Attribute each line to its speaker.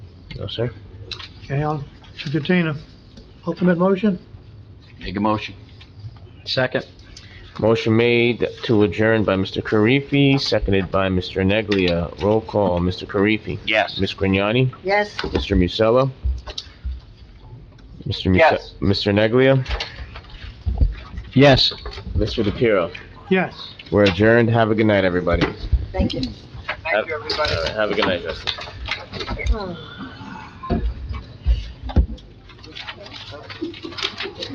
Speaker 1: sir.
Speaker 2: Okay, I'll entertain a ultimate motion.
Speaker 3: Make a motion.
Speaker 4: Second.
Speaker 1: Motion made to adjourn by Mr. Karifi, seconded by Mr. Neglia. Roll call, Mr. Karifi.
Speaker 3: Yes.
Speaker 1: Ms. Grignani?
Speaker 5: Yes.
Speaker 1: Mr. Musella? Mr. Muse-
Speaker 3: Yes.
Speaker 1: Mr. Neglia?
Speaker 4: Yes.
Speaker 1: Mr. DePiero?
Speaker 2: Yes.
Speaker 1: We're adjourned. Have a good night, everybody.
Speaker 5: Thank you.
Speaker 1: Thank you, everybody. Have a good night, Justin.
Speaker 5: Hmm.